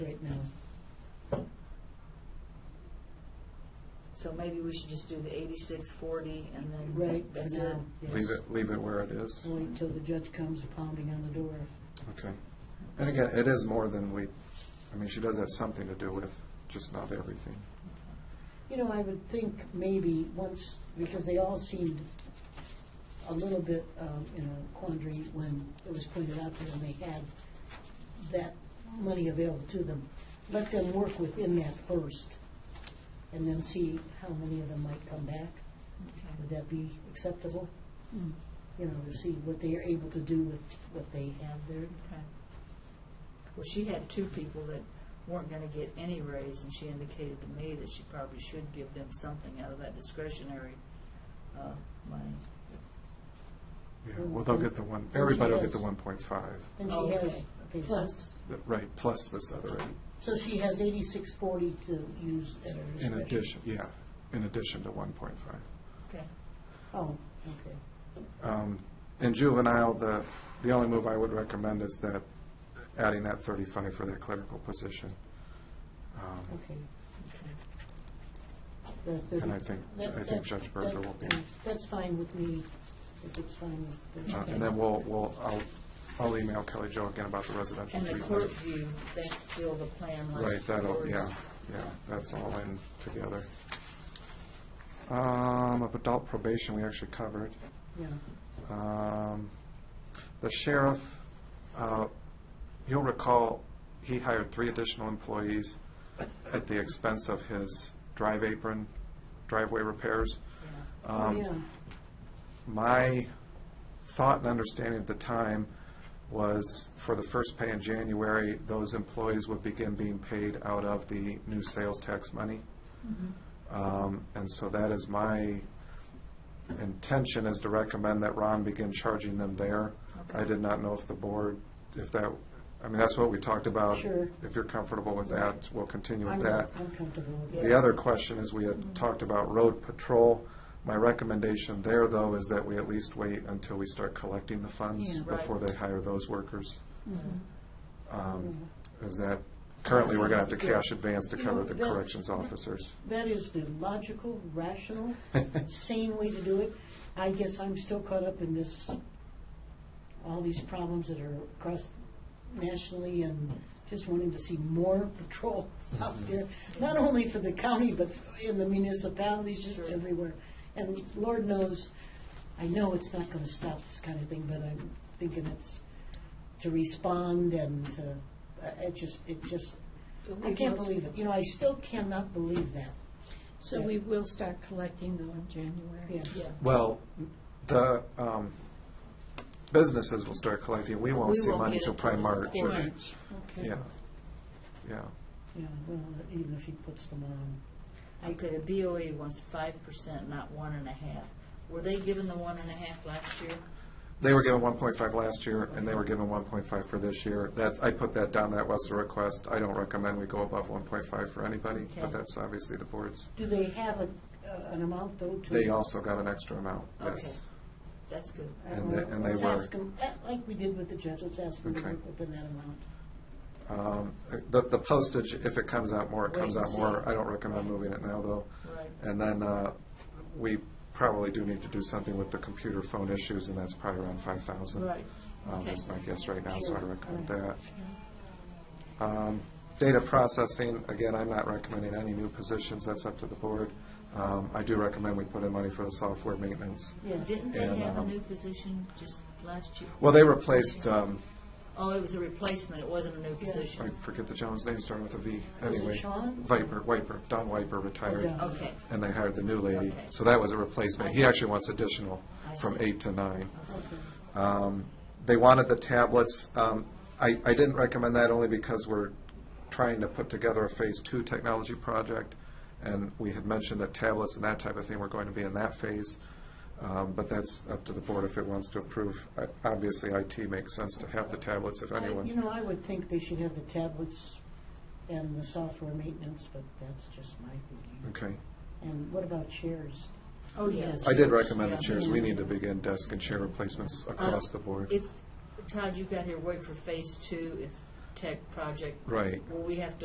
So maybe we should just do the eighty-six forty and then. Right, for That's it. now. yes. Leave it, leave it where it is. I'll Wait till the judge comes pounding on the door. Okay. And again, it is more than we, I mean, she does have something to do with, just not everything. You know, I would think maybe once, because they all seemed a little bit um, in a quandary when it was pointed out to them they had that money available to them. Let them work within that first, and then see how many of them might come back. Would that be acceptable? Mm. You know, to see what they are able to do with what they have there. Okay. Well, she had two people that weren't gonna get any raise, and she indicated to me that she probably should give them something out of that discretionary, uh, money. Yeah, well, they'll get the one, everybody will get the one point five, And Oh, she has, okay. okay, so, Plus, right, plus this other eight, so she has eighty-six forty to use at her in discretion. addition, yeah, in addition to one point five. okay, Oh, okay. Um, In juvenile, the, the only move I would recommend is that, adding that thirty-five for that clerical position. Um, Okay. okay. The And I 30 think, that- I that- think Judge Berger will be, that- uh, That's fine with me, if it's fine with the. uh, and then we'll, we'll, I'll, I'll email Kelly Jo again about the residential And the treatment. court view, that's still the plan, like. Right, that'll, yours. yeah, yeah, that's all in together. Um, of adult probation, we actually covered. Yeah, Um, The sheriff, uh, you'll recall, he hired three additional employees at the expense of his drive apron, driveway repairs. Yeah. oh, Um, yeah, my thought and understanding at the time was for the first pay in January, those employees would begin being paid out of the new sales tax money. Mm-hmm. Um, And so that is my intention is to recommend that Ron begin charging them there. I Okay. did not know if the board, if that, I mean, that's what we talked about. Sure. If you're comfortable with that, we'll continue I'm, with that. I'm comfortable with Yeah. it. The other question is, we had talked about road patrol. My recommendation there, though, is that we at least wait until we start collecting the funds Yeah. Right. before they hire those workers. Mm-hmm. Um, Is that, currently, we're gonna have to cash advance to cover the You know, that- corrections officers. That is the logical, rational, sane way to do it. I guess I'm still caught up in this, all these problems that are across nationally and just wanting to see more patrols out there, not only for the county, but in the municipalities, just Sure. everywhere. And Lord knows, I know it's not gonna stop this kind of thing, but I'm thinking it's to respond and to, I- it just, it just, I can't believe it. You know, I still cannot believe that. So we will start collecting though in January. Yeah. Yeah. Well, the um, businesses will start collecting. We won't We see won't money get till it probably till the March. or- Right. March. Okay. Yeah, yeah. Yeah, well, even if he puts them on, Okay, the BOE E wants five percent, not one and a half. Were they given the one and a half last year? They were given one point five last year, and they were given one point five for this year. That, I put that down, that was the request. I don't recommend we go above one point five for anybody, but Okay. that's obviously the board's. do they have a, uh, an amount though to? They also got an extra amount, Okay. yes. That's good. I don't and they- know. and they Let's were. ask 'em, eh, Like we did with the judge, let's ask them to Okay. work within that amount. Um, The, the postage, if it comes out more, it Wait comes and out more. see. I don't recommend moving it now, though. Right. And then, uh, we probably do need to do something with the computer phone issues, and that's probably around five thousand. Right. Um, Okay. That's my guess right now, so I recommend Sure. that. Um, Data processing, again, I'm not recommending any new positions, that's up to the board. Um, I do recommend we put in money for the software maintenance. Yes, Didn't they And, have a um, new position just last year? Well, they replaced, um, Oh, it was a replacement, it wasn't a new I position. forget the gentleman's name, starting with a V, Was it anyway. Sean? Viper, Wiper, Don Wiper retired, Oh, Don. Okay, and they hired the new lady. Okay. So that was a replacement. He I see. actually wants additional I from see. eight to nine. okay. Um, They wanted the tablets. Um, I, I didn't recommend that only because we're trying to put together a phase two technology project, and we had mentioned that tablets and that type of thing were going to be in that phase. Um, But that's up to the board if it wants to approve. I- Obviously, IT makes sense to have the tablets if I- You anyone. know, I would think they should have the tablets and the software maintenance, but that's just my thinking. Okay. And what about chairs? oh, yes. I did recommend the Yeah. chairs. We need to begin desk and chair replacements Uh, across the board. If, Todd, you got here, wait for phase two, if tech project. Right. Will we have to